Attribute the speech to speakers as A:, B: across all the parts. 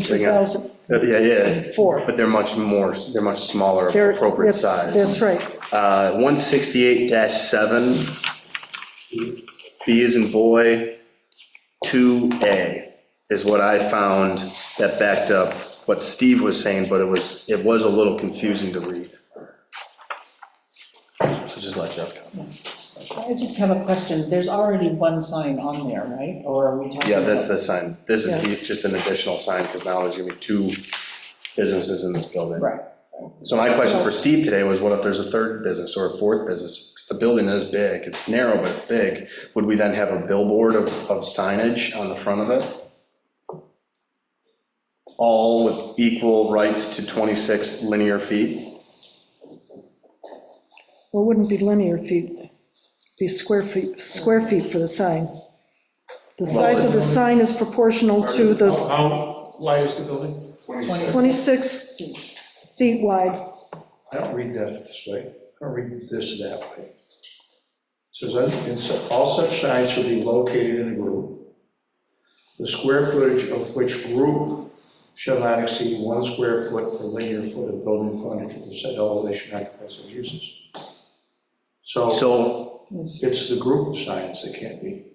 A: something else. Uh, Yeah, yeah,
B: Four.
A: but they're much more, they're much smaller,
B: They're-
A: appropriate
B: that's- That's
A: size.
B: right.
A: Uh, 168-7, B is in boy, 2A is what I found that backed up what Steve was saying, but it was, it was a little confusing to read. So just let Jeff know.
C: I just have a question. There's already one sign on there, right? Or are we talking?
A: Yeah, that's
C: about-
A: the sign. This is
B: Yes.
A: the- just an additional sign, because now there's gonna be two businesses in this building.
C: Right.
A: So my question for Steve today was, what if there's a third business or a fourth business? 'Cause the building is big, it's narrow, but it's big. Would we then have a billboard of of signage on the front of it? All with equal rights to 26 linear feet?
B: Well, it wouldn't be linear feet, it'd be square feet, square feet for the sign. The size of the sign is proportional to the
D: How wide is the building?
B: 26 feet wide.
D: I don't read that this way. I don't read this that way. It Says, "And so- all such signs shall be located in a group, the square footage of which group shall not exceed one square foot per linear foot of building frontage of the said elevation occupies such uses. So
A: So,
D: it's the group of signs that can't be.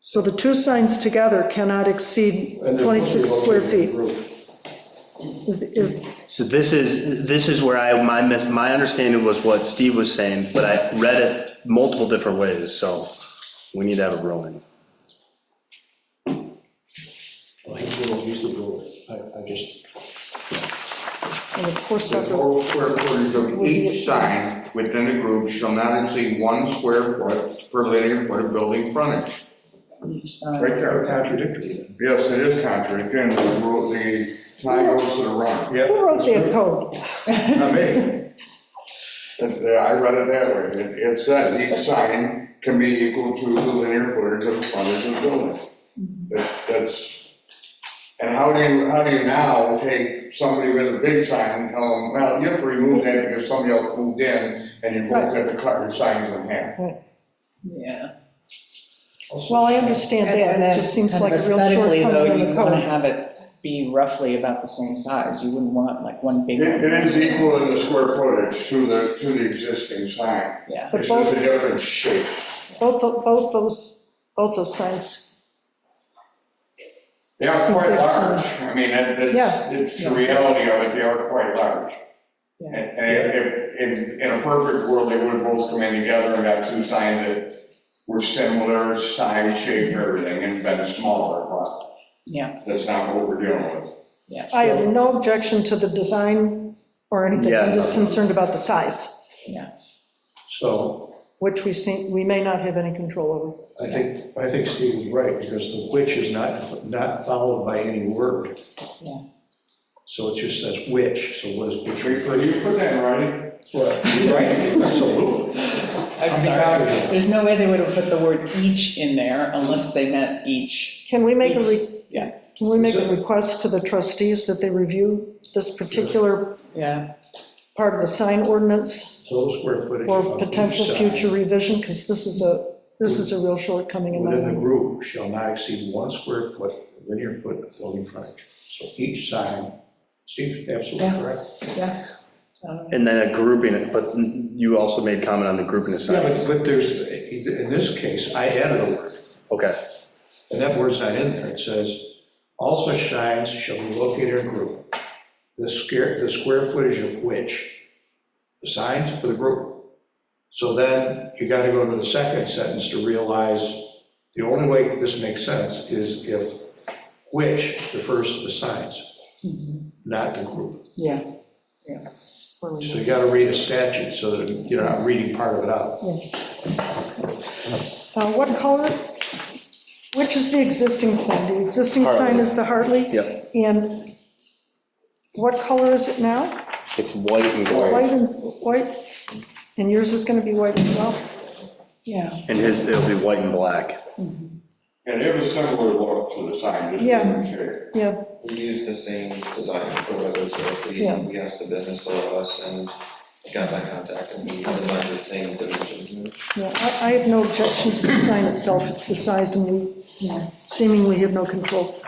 B: So the two signs together cannot exceed
D: and they're supposed to be
B: 26 square
D: located in a
B: feet.
D: group.
B: Is, is,
A: so this is, this is where I, my, mis- my understanding was what Steve was saying, but I read it multiple different ways, so we need to have a ruling.
D: Well, he's the one, he's the ruler. I, I just.
B: and the poor
E: The
B: sucker,
E: total square footage of each sign within a group shall not exceed one square foot per linear foot of building frontage.
C: Each sign.
E: Right there.
D: contradictory then.
E: Yes, it is contradictory, and the rule, the sign goes to the wrong.
D: Yeah.
B: who wrote that code?
E: Not me. It- I read it that way. It- It says each sign can be equal to the linear footage of the frontage of the building. That- That's, and how do you, how do you now take somebody with a big sign and tell them, well, you have to remove that because somebody else moved in and you both have to cut your signs in half.
C: Yeah.
B: Well, I understand
C: And
B: that,
C: then
B: it just seems
C: kind of
B: like a real
C: Aesthetically, though,
B: shortcoming
C: you
B: in the
C: want to
B: code.
C: have it be roughly about the same size. You wouldn't want like one big.
E: It it is equal in the square footage to the, to the existing sign.
C: Yeah.
B: But
E: It's just
B: both,
E: a different shape.
B: both, both those, both those signs,
E: They are quite large. I mean, it-
B: Yeah.
E: it's, it's the reality of it, they are quite large.
B: Yeah.
E: And and if, in, in a perfect world, they would both come in together and got two signs that were similar size, shape, and everything, and been smaller, but
C: Yeah.
E: that's not what we're dealing with.
B: I have no objection to the design or anything,
A: Yeah,
B: I'm just
A: nothing.
B: concerned about the size,
D: So
B: which we seem, we may not have any control over.
D: I think, I think Steve was right, because the which is not, not followed by any word.
C: Yeah.
D: So it just says which, so what is which refer
E: Can
D: to?
E: you put that in writing?
D: Well, Right, absolutely.
C: I'm sorry. There's no way they would have put the word each in there unless they meant each.
B: Can we make a,
C: Each,
B: re-
C: yeah.
B: can we make a request to the trustees that they review this particular
C: Yeah.
B: part of the sign ordinance
D: Total square footage.
B: for
D: of each
B: potential
D: sign
B: future revision, because this is a, this is a real shortcoming in my
D: Within the
B: mind.
D: group shall not exceed one square foot, linear foot of building frontage. So each sign, Steve's absolutely
C: Yeah.
D: correct.
C: Yeah. Um,
A: And then a grouping, but you also made comment on the grouping of
D: Yeah,
A: signs.
D: but but there's, in this case, I added a word.
A: Okay,
D: And that word's not in there. It says, "All such signs shall be located in a group, the square, the square footage of which, the signs for the group." So then you got to go to the second sentence to realize the only way this makes sense is if which refers to the signs, not the group.
C: Yeah.
D: So you got to read a statute so that you're not reading part of it out.
B: Uh, What color, which is the existing sign? The existing sign
A: Hartley.
B: is the Hartley?
A: yep,
B: And what color is it now?
A: it's white and
B: White
A: gold,
B: and, white, and yours is gonna be white as well?
C: Yeah.
A: and his, it'll be white and black.
E: And it was similar look to the sign, just
B: Yeah.
E: different shape.
B: Yeah,
F: We use the same design for others, so if we,
B: Yeah.
F: we asked the business for us and got that contact and we designed the same dimensions.
B: yeah, I, I have no objection to the sign itself, it's the size and we seemingly have no control.